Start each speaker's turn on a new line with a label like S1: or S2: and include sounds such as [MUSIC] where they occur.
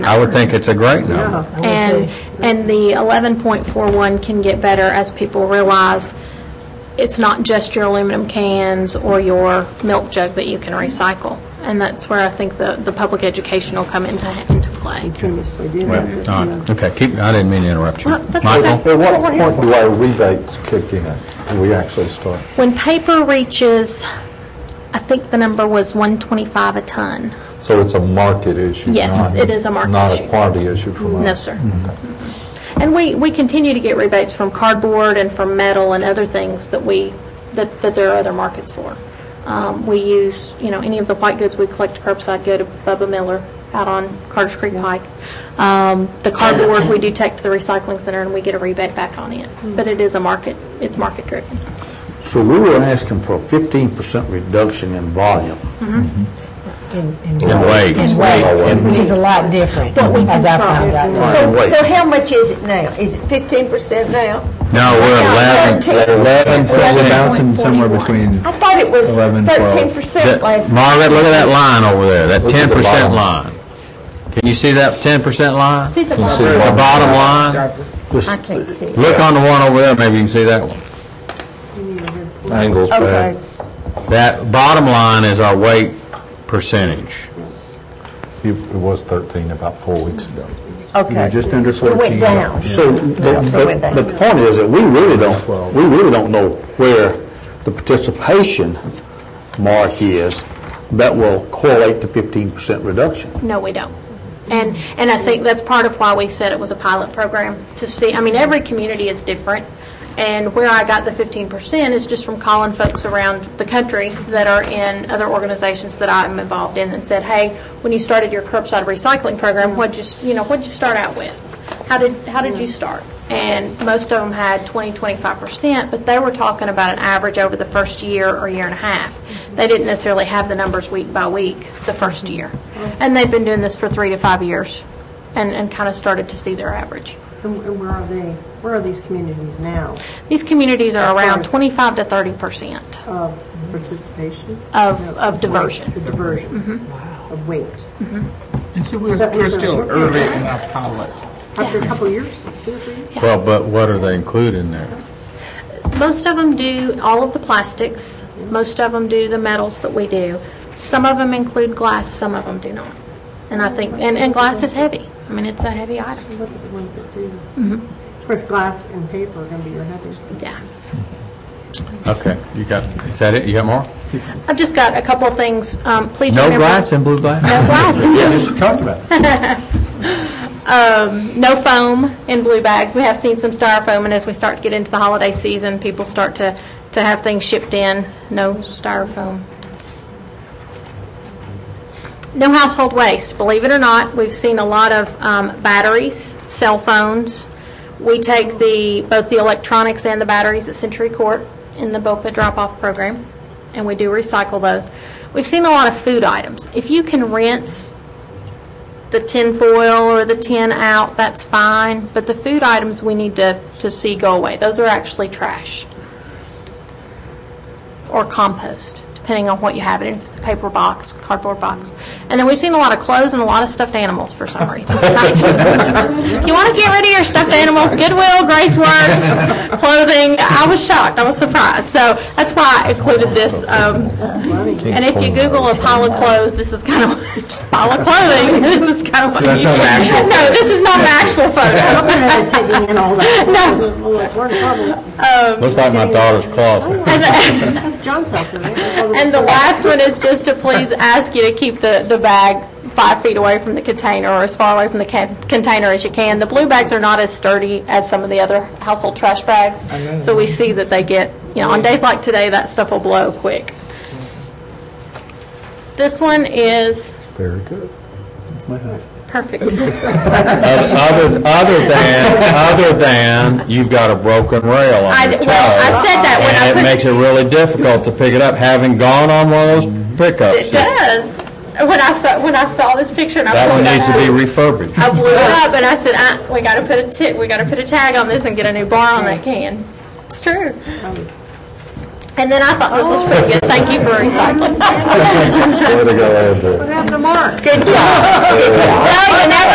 S1: I would think it's a great number.
S2: Oh,
S3: And, and the 11.41 can get better as people realize it's not just your aluminum cans or your milk jug that you can recycle. And that's where I think the, the public education will come into, into play.
S4: continuously do
S1: Well,
S4: that.
S1: all right. Okay, keep, I didn't mean to interrupt you.
S3: Well, that's
S1: Michael?
S3: okay.
S5: At what point do our rebates kick in and we actually start?
S3: When paper reaches, I think the number was 125 a ton.
S5: So it's a market issue?
S3: Yes,
S5: not-
S3: it is a market
S5: Not
S3: issue.
S5: a quantity issue from us?
S3: No, sir. And we, we continue to get rebates from cardboard and from metal and other things that we, that, that there are other markets for. Um, we use, you know, any of the white goods we collect curbside go to Bubba Miller out on Carter's Creek Pike. Um, the cardboard, we do take to the recycling center and we get a rebate back on it. But it is a market, it's market driven.
S6: So we were asking for a 15% reduction in volume.
S1: In weight.
S7: In weight, which is a lot different, as I found out.
S4: So, so how much is it now? Is it fifteen percent now?
S1: No, we're 11.
S4: Thirteen.
S1: percent.
S8: bouncing somewhere between,
S4: I thought it was
S8: Eleven, twelve.
S4: thirteen percent last.
S1: Margaret, look at that line over there, that
S5: Look at the
S1: 10%
S5: bottom.
S1: line. Can you see that 10% line?
S3: See the
S5: see
S1: The
S5: the
S3: bottom.
S1: bottom line?
S4: I can't see it.
S1: Look on the one over there, maybe you can see that one.
S5: Angles
S4: Okay.
S8: uh,
S5: bad.
S1: That bottom line is our weight percentage.
S5: It it was 13 about four weeks ago.
S4: Okay.
S8: just under
S4: It
S8: 14.
S4: went down.
S6: So, but, but- but the point is that we really don't, we really don't know where the participation mark is that will correlate to 15% reduction.
S3: No, we don't. And, and I think that's part of why we said it was a pilot program, to see, I mean, every community is different, and where I got the 15% is just from calling folks around the country that are in other organizations that I am involved in and said, hey, when you started your curbside recycling program, what'd you, you know, what'd you start out with? How did, how did you start? And most of them had 20, 25%, but they were talking about an average over the first year or year and a half. They didn't necessarily have the numbers week by week the first year. And they've been doing this for three to five years and, and kind of started to see their average.
S2: And where are they, where are these communities now
S3: These communities are around 25 to 30%
S2: of participation?
S3: of,
S2: No,
S3: of diversion.
S2: The diversion. Wow.
S3: Mm-hmm.
S2: Of weight.
S9: And so we're,
S2: that
S9: we're
S2: was a-
S9: still early in our pilot.
S2: After a couple of years, two or three years?
S1: Well, but what are they including there?
S3: Most of them do all of the plastics. Most of them do the metals that we do. Some of them include glass, some of them do not. And I think, and, and glass is heavy. I mean, it's a heavy item.
S2: Look at the ones that do.
S3: Mm-hmm.
S2: Of course, glass and paper are going to be your heaviest.
S3: Yeah.
S1: Okay, you got, is that it? You got more?
S3: I've just got a couple of things. Um, Please
S1: No
S3: remember.
S1: glass and blue glass?
S3: No
S1: [LAUGHS]
S3: glass.
S6: Just talked about it.
S3: Um, No foam in blue bags. We have seen some styrofoam, and as we start to get into the holiday season, people start to, to have things shipped in. No styrofoam. No household waste. Believe it or not, we've seen a lot of um, batteries, cell phones. We take the, both the electronics and the batteries at Century Court in the BOPA drop-off program, and we do recycle those. We've seen a lot of food items. If you can rinse the tin foil or the tin out, that's fine, but the food items we need to, to see go away. Those are actually trash or compost, depending on what you have it in, if it's a paper box, cardboard box. And then we've seen a lot of clothes and a lot of stuffed animals for some reason. [LAUGHS] if you want to get rid of your stuffed animals, Goodwill, Grace Works, clothing, I was shocked, I was surprised. So that's why I included this. Um, and if you Google a pile of clothes, this is kind of [LAUGHS] just pile of clothing. [LAUGHS] This is kind of what
S1: That's
S3: you [LAUGHS]
S1: not an actual
S3: No, this is not an actual
S1: [LAUGHS]
S2: I'm going to
S3: photo.
S2: [LAUGHS] taking in all that.
S3: [LAUGHS] No.
S2: We're in trouble.
S1: Looks like my daughter's
S3: [LAUGHS] Oh
S1: closet.
S3: Um, And-
S2: That's John's house, isn't it?
S3: [LAUGHS] And the last one is just to please ask you to keep the, the bag five feet away from the container or as far away from the can- container as you can. The blue bags are not as sturdy as some of the other household trash bags, so we see that they get, you know, on days like today, that stuff will blow quick. This one is
S5: Very good.
S3: perfect.
S1: [LAUGHS] Other, other than, other than, you've got a broken rail
S3: I-
S1: on your toe.
S3: well, I said that when
S1: And
S3: I
S1: it
S3: put-
S1: makes it really difficult to pick it up, having gone on one of those
S3: It
S1: pickups.
S3: does. When I saw, when I saw this picture and I
S1: That one
S3: pulled it
S1: needs to be
S3: out, [LAUGHS]
S1: refurbished.
S3: I blew it up and I said, "Uh, we gotta put a tick, we gotta put a tag on this and get a new bar on that can. It's true. And then I thought this was pretty good. Thank you for recycling.
S5: Way to go, Andrew.
S2: Have the mark.
S3: Good job. Well, you never